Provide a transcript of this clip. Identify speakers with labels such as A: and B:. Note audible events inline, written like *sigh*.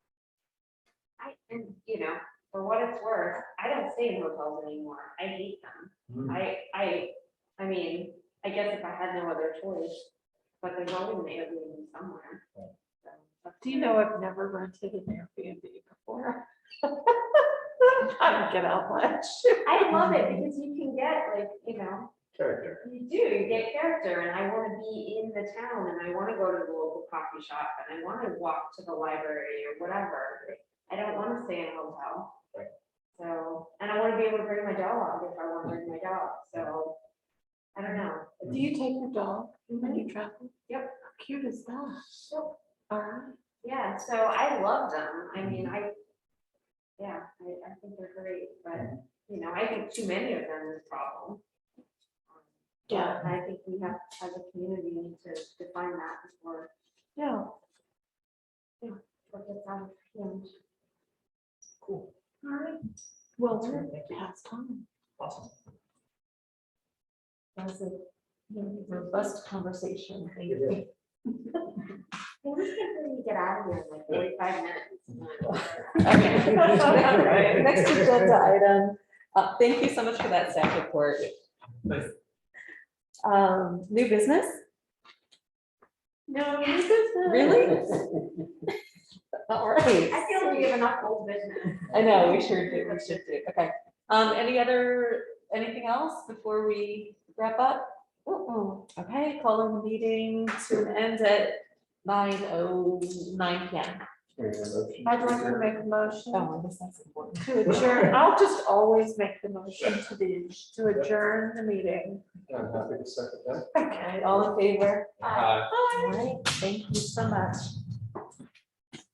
A: I, and, you know, for what it's worth, I don't stay in hotels anymore. I hate them.
B: Mm.
A: I, I, I mean, I guess if I had no other choice, but there's always an Airbnb somewhere.
B: Right.
A: So,
C: Do you know, I've never rented an Airbnb before. *laughs* I don't get out much.
A: I love it because you can get like, you know,
B: Character.
A: You do, you get character, and I wanna be in the town, and I wanna go to the local coffee shop, and I wanna walk to the library or whatever. I don't wanna stay in a hotel.
B: Right.
A: So, and I wanna be able to bring my dog if I wanna bring my dog, so, I don't know.
C: Do you take your dog when
A: Mhm.
C: you travel?
A: Yep.
C: How cute is that?
A: So,
C: Alright.
A: Yeah, so I love them, I mean, I, yeah, I, I think they're great, but, you know, I think too many of them is a problem.
C: Yeah,
A: And I think we have, as a community, we need to define that before
C: yeah.
A: Look at that, and
B: Cool.
C: Alright. Well,
B: That's
C: we're
B: great, thank you.
C: past time.
B: Awesome.
C: That was a robust conversation. Thank
B: It is.
A: Well, we can really get out of here in like forty-five minutes.
D: *laughs* Okay. All right, Next agenda item, Uh, thank you so much for that staff report.
B: Nice.
D: Um, New business,
C: No, this is.
D: really? All
A: I
D: right,
A: feel we have enough old business.
D: I know, we should do, we should do, okay. Um, Any other, anything else before we wrap up?
C: Oh,
D: Okay, calling the meeting to an end at nine oh nine P M.
C: I'd like to make a motion
D: Oh, I guess that's important.
C: to adjourn. I'll just always make the motion to the, to adjourn the meeting.
B: I'm happy to second that.
D: Okay, all in favor?
B: Uh,
D: All right, thank you so much.